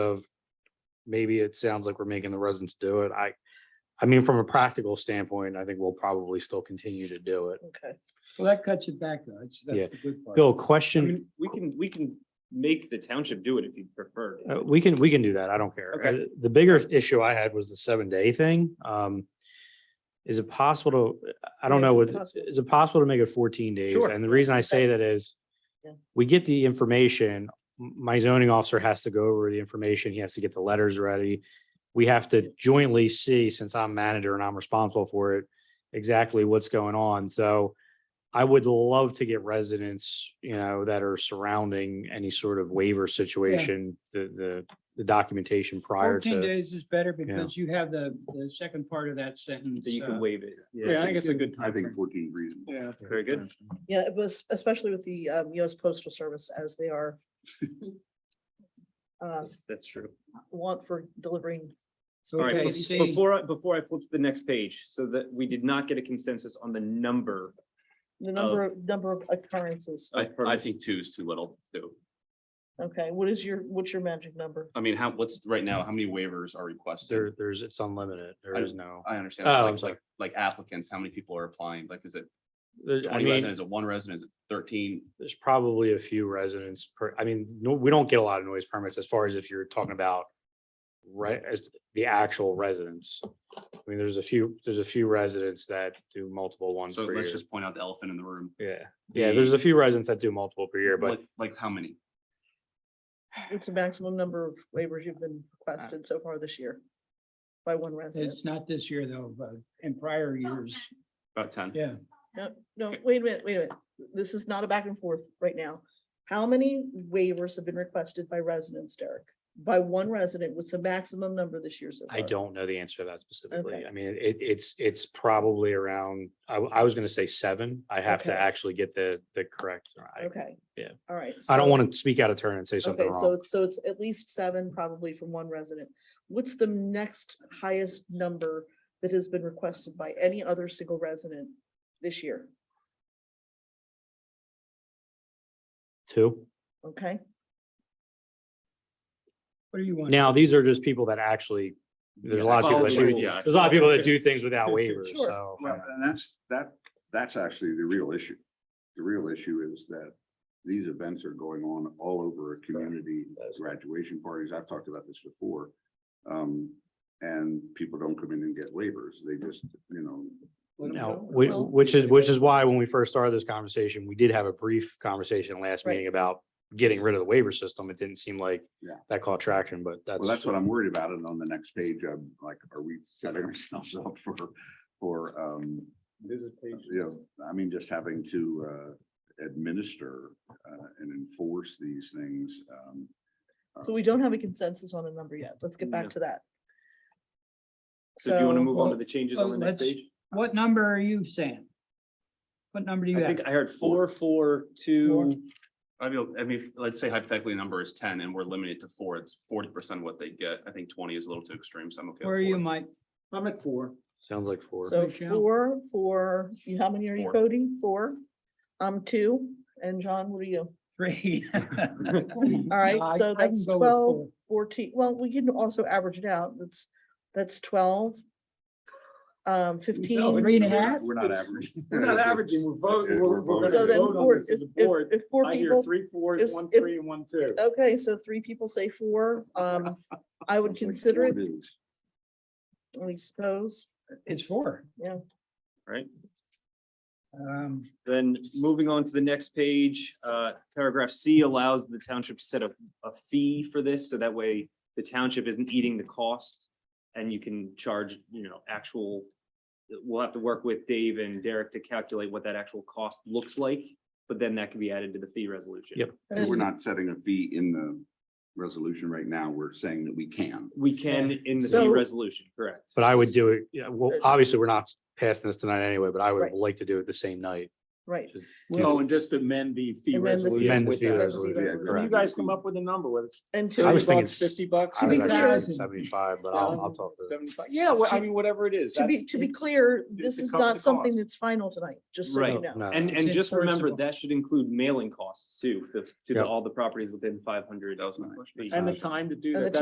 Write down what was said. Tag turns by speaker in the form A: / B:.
A: of maybe it sounds like we're making the residents do it. I, I mean, from a practical standpoint, I think we'll probably still continue to do it.
B: Okay.
C: Well, that cuts it back though. That's,
A: Yeah.
C: that's the good part.
A: Bill,
D: I
A: question,
D: mean, we can, we can make the township do it if you prefer.
A: uh, we can, we can do that. I don't care.
D: Okay.
A: Uh, The bigger issue I had was the seven day thing. Um, is it possible to, I don't
B: Yeah,
A: know,
B: is it
A: what-
B: possible?
A: is it possible to make it fourteen days?
D: Sure.
A: And the reason I say that is
B: Yeah.
A: we get the information, m- my zoning officer has to go over the information. He has to get the letters ready. We have to jointly see, since I'm manager and I'm responsible for it, exactly what's going on. So I would love to get residents, you know, that are surrounding any sort of waiver situation, the, the, the documentation prior
C: Fourteen
A: to.
C: days is better because you have the, the second part of that sentence.
D: So you
C: uh,
D: can waive it.
C: Yeah, I think it's a good
E: I
C: time.
E: think fourteen is reasonable.
C: Yeah.
D: Very good.
B: Yeah, it was especially with the um, US Postal Service as they are uh,
D: That's true.
B: want for delivering.
D: All right,
C: Okay,
D: bef-
C: see.
D: before, I- before I flip to the next page, so that we did not get a consensus on the number.
A: Oh.
B: The number, of number of occurrences.
F: I, I think two is too little, too.
B: Okay, what is your, what's your magic number?
F: I mean, how, what's, right now, how many waivers are
A: There,
F: requested?
A: there's, it's unlimited. There
F: I-
A: is no.
F: I understand,
A: Oh, I'm
F: like,
A: sorry.
F: like, like applicants, how many people are applying? Like, is it
A: There- I
F: twenty
A: mean.
F: residents, is it one resident, is it thirteen?
A: there's probably a few residents per, I mean, no, we don't get a lot of noise permits as far as if you're talking about right, as the actual residents. I mean, there's a few, there's a few residents that do multiple ones
F: So
A: per year.
F: let's just point out the elephant in the room.
A: Yeah, yeah, there's a few residents that do multiple per year, but
F: Like, like how many?
B: It's the maximum number of waivers you've been requested so far this year by one resident.
C: It's not this year though, but in prior years,
F: About ten?
C: yeah.
B: No, no, wait a minute, wait a minute. This is not a back and forth right now. How many waivers have been requested by residents, Derek? By one resident, what's the maximum number this year so far?
A: I don't know the answer to that specifically.
B: Okay.
A: I mean, it, it's, it's probably around, I, w- I was gonna say seven. I have to
B: Okay.
A: actually get the, the correct. I,
B: Okay.
A: yeah.
B: All right.
A: I don't
B: so-
A: want to speak out of turn and say something
B: Okay,
A: wrong.
B: so, so it's at least seven probably from one resident. What's the next highest number that has been requested by any other single resident this year?
A: Two.
B: Okay,
C: What do you want?
A: Now, these are just people that actually, there's a lot of people that
F: Follow the
A: do,
F: rules.
A: there's a lot of people that do things without waivers,
B: Sure.
A: so.
E: Well, and that's, that, that's actually the real issue. The real issue is that these events are going on all over a community, graduation parties, I've talked about this before. Um, and people don't come in and get waivers, they just, you know.
C: What do
A: No,
C: want?
A: whi- which is, which is why when we first started this conversation, we did have a brief conversation last
B: Right.
A: meeting about getting rid of the waiver system. It didn't seem like
E: Yeah.
A: that caught traction, but that's.
E: Well, that's what I'm worried about, and on the next page, I'm like, are we setting ourselves up for, for, um, you know, I mean, just having to uh, administer uh, and enforce these things. um,
B: so we don't have a consensus on a number yet. Let's get back
D: No.
B: to that.
D: So do you want to
B: So-
D: move on to the changes on the
C: well,
D: next
C: let's-
D: page?
C: What number are you saying? What number do you
D: I
C: have?
D: think I heard four, four, two.
F: I mean, I mean, let's say hypothetically, the number is ten and we're limited to four, it's forty percent of what they get. I think twenty is a little too extreme, so I'm okay. with
C: Where are you,
F: four.
C: Mike? I'm at four.
A: Sounds like four.
B: So
C: Michelle?
B: four, four, you- how many are you
F: Four.
B: coding? Four? I'm two, and John, what are you?
C: Three.
B: All right, so that's twelve, fourteen, well, we can also average it out, that's, that's twelve. Um, fifteen.
C: Three and a half?
E: We're not average.
C: we're
E: voting- we're- we're gonna
B: So then four, if, if, if four
D: I hear
B: people,
D: three fours,
B: is-
D: one
B: if-
D: three and one two.
B: okay, so three people say four, um, I would consider it, I suppose,
C: It's four.
B: yeah.
C: Um,
D: Then moving on to the next page, uh, paragraph C allows the township to set a, a fee for this, so that way the township isn't eating the cost. And you can charge, you know, actual, we'll have to work with Dave and Derek to calculate what that actual cost looks like. But then that can be added to the fee resolution.
A: Yep.
E: And We're not setting a fee in the resolution right now. We're saying that we can.
D: We can in the fee
B: So-
D: resolution, correct?
A: But I would do it, yeah, well, obviously, we're not passing this tonight anyway, but I would
B: Right.
A: like to do it the same night.
B: Right.
A: Well,
D: Oh, and just amend the fee
B: And then the fee-
A: Amend the
B: with
A: fee
B: that.
A: resolution.
B: Yeah,
A: correct.
E: you guys come up
D: with a number, whether it's
B: And
A: I
B: to,
A: was thinking s-
D: bucks.
A: I
B: be
A: was
B: clear-
A: actually thinking Seventy-five, but I'll, I'll talk to.
D: Yeah,
B: well, I
D: mean, whatever it is.
B: to be, to be clear,
D: it-
B: this
D: it
B: is
D: covers
B: not
D: the
B: something
D: cost.
B: that's final tonight, just so you
D: Right.
B: know.
A: No.
D: And,
C: It's
D: and just remember,
C: enforceable.
D: that should include mailing costs too, to, to the-
A: Yep.
D: all the properties within five hundred.
F: That was my question.
B: And the